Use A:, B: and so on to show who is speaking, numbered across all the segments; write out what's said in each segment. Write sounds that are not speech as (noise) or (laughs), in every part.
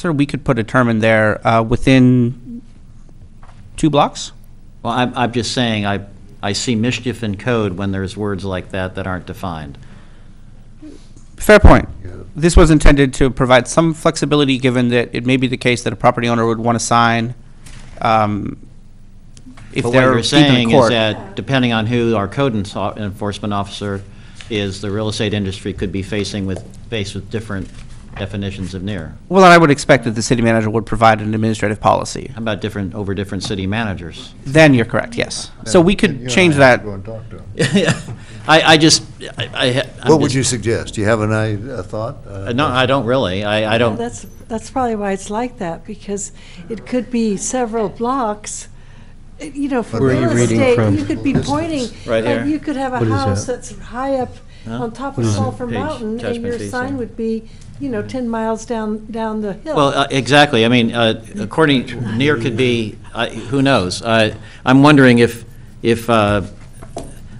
A: Sir, we could put a term in there uh, within two blocks?
B: Well, I'm, I'm just saying, I, I see mischief in code when there's words like that that aren't defined.
A: Fair point. This was intended to provide some flexibility, given that it may be the case that a property owner would want to sign um, if
B: But what
A: they're
B: you're
A: even in
B: saying is
A: court.
B: that, depending on who our code enso- enforcement officer is, the real estate industry could be facing with, faced with different definitions of near.
A: Well, I would expect that the city manager would provide an administrative policy.
B: How about different, over different
A: (laughs)
B: city managers?
A: Then you're correct, yes. So we
C: You
A: could
C: and I
A: change
C: have
A: that.
C: to go and talk to 'em.
B: I, I just, I, I. I'm
C: What would you
B: just-
C: suggest? Do you have an idea, a thought? Uh,
B: No, I don't really. I, I
D: Well,
B: don't,
D: That's, that's probably why it's like that, because it could be several blocks, It- you know, for
C: Where are you
D: real
C: reading
D: estate,
C: from?
D: you could be pointing.
B: Right here.
D: and You could have a
E: is
D: house
E: that?
D: that's high up
B: Huh?
D: on top of
B: No.
D: Sulphur
B: Page,
D: Mountain, and
B: judgment
D: your
B: fees,
D: sign
B: yeah.
D: would be, you know, ten miles down, down the hill.
B: well, uh, exactly. I mean, uh, according, near could be, I- who knows? I, I'm wondering if, if, uh,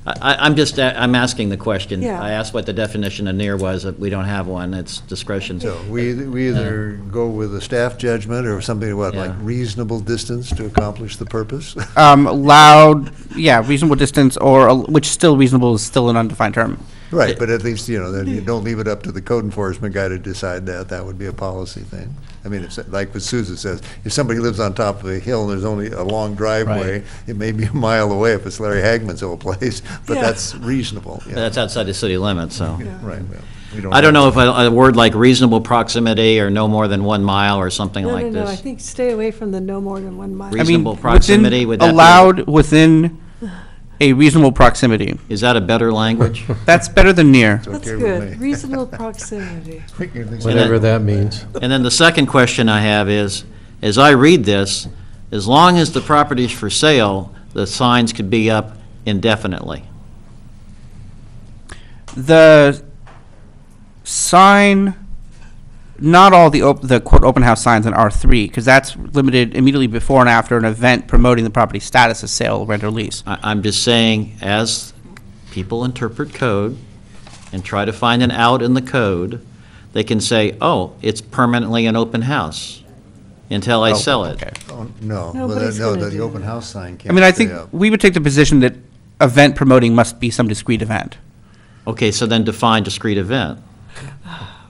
B: I, I'm just, a- I'm asking the question.
D: Yeah.
B: I asked what the definition of near was. We don't have one. It's discretion.
C: So we, either- we either go with a staff judgment or something, what, like
B: Yeah.
C: reasonable distance to accomplish
B: (laughs)
C: the purpose?
A: Um, loud, yeah, reasonable distance, or, a- which still reasonable is still an undefined term.
C: Right, but at least, you know, then you don't leave it up to the code enforcement guy to decide that. That would be a policy thing. I mean, it's like what Susan says, if somebody lives on top of a hill and there's only a long driveway, it may be a mile away if it's Larry Hagman's old place, (laughs) but
D: Yeah.
C: that's reasonable. yeah.
B: But That's outside the city limits, so.
C: Right. well, we
B: I don't know if a a word like reasonable proximity or no more than one mile or something
D: No,
B: like
D: no,
B: this.
D: no, I think stay away from the no more than one mile.
A: I mean,
B: Reasonable
A: within-
B: proximity, would that be-
A: Allowed within a reasonable proximity.
B: Is that a better language?
A: That's better than near.
C: It's
D: That's
C: okay with
D: good,
C: me. (laughs)
D: reasonable proximity.
C: We can at least-
E: Whatever that means.
B: And then the second question I have is, as I read this, as long as the property's for sale, the signs could be up indefinitely.
A: The sign, not all the, op- the quote, open house signs in R3, because that's limited immediately before and after an event promoting the property status as sale, rent, or lease.
B: I, I'm just saying, as people interpret code and try to find an out in the code, they can say, oh, it's permanently an open house until I sell it.
A: Okay.
C: Oh, No, well,
D: Nobody's
C: that- no,
D: gonna
C: the
D: do
C: open
D: that.
C: house sign can't.
A: I mean, I
C: stay
A: think
C: up.
A: we would take the position that event promoting must be some discrete event.
B: Okay, so then define discrete event,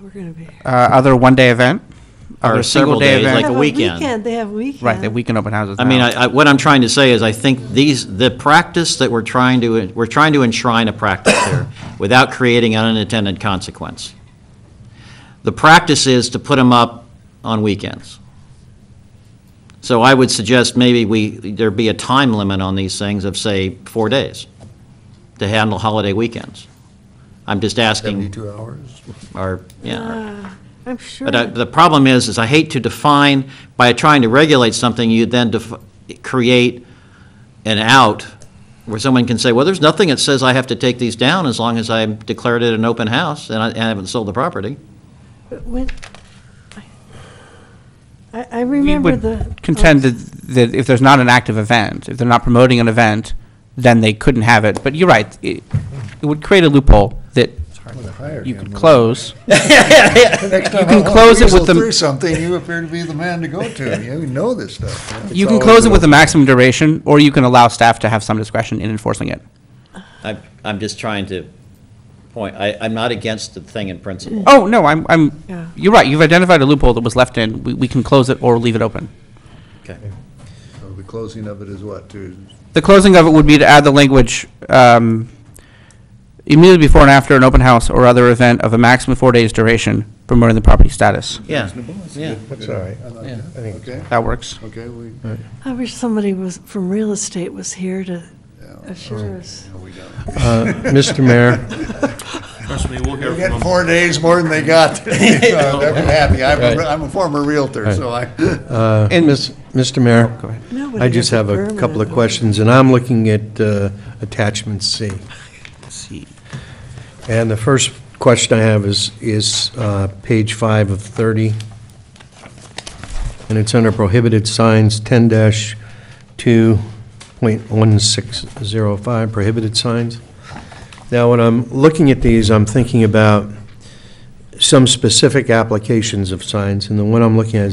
D: We're gonna be.
A: Uh, Other one-day event,
B: or
A: Other
B: several
A: single-day
B: days,
A: event.
B: like
D: Have
B: a weekend.
D: They have weekend.
A: right, that weekend open houses
B: I mean,
A: now.
B: I, I, what I'm trying to say is, I think these, the practice that we're trying to, we're trying to enshrine a practice here without creating an unintended consequence. The practice is to put them up on weekends. So I would suggest maybe we, there be a time limit on these things of, say, four days to handle holiday weekends. I'm just asking,
C: Seventy-two hours?
B: or, yeah, or-
D: Uh, I'm sure.
B: but I- the problem is, is I hate to define, by trying to regulate something, you then def- create an out where someone can say, well, there's nothing that says I have to take these down as long as I declared it an open house and I and I haven't sold the property.
D: But when, I- I, I
A: We
D: remember the. oh,
A: would contend that, that if there's not an active event, if they're not promoting an event, then they couldn't have it. But you're right, it, it would create a loophole that you could close.
C: You
A: can close it with the-
C: Through something, you appear to be the man to go
A: (laughs)
C: to. You know this stuff. yeah.
A: You
C: It's
A: can
C: always
A: close it
C: been
A: with a
C: open.
A: maximum duration, or you can allow staff to have some discretion in enforcing it.
B: I, I'm just trying to point, I, I'm not against the thing in principle.
A: Oh, no, I'm,
D: Yeah.
A: I'm, you're right, you've identified a loophole that was left in, we, we can close it or leave it open.
B: Okay.
C: So The closing of it is what, to,
A: The closing of it would be to add the language, um, immediately before and after an open house or other event of a maximum four days duration promoting the property status.
B: Yeah, yeah.
E: That's all right.
C: okay,
A: That works.
C: okay, we,
D: I wish somebody was, from real estate was here to
E: Oh,
D: assure us.
C: no, we don't.
E: Mr. Uh, Mayor,
F: Trust me, we'll hear
C: We're
F: from
C: getting
F: them.
C: four days more than they got.
F: (laughs)
C: (laughs) So I'm happy. I'm, a-
E: Right.
C: I'm a former realtor, so I.
E: uh, Miss- Mr. Mayor,
D: Nobody
E: I just
D: has
E: have a
D: permanent
E: couple of
D: on.
E: questions, and I'm looking at uh, attachment C.
A: See.
E: And the first question I have is, is uh, page five of 30, and it's under prohibited signs, 10-2.1605, prohibited signs. Now, when I'm looking at these, I'm thinking about some specific applications of signs, and the one I'm looking at is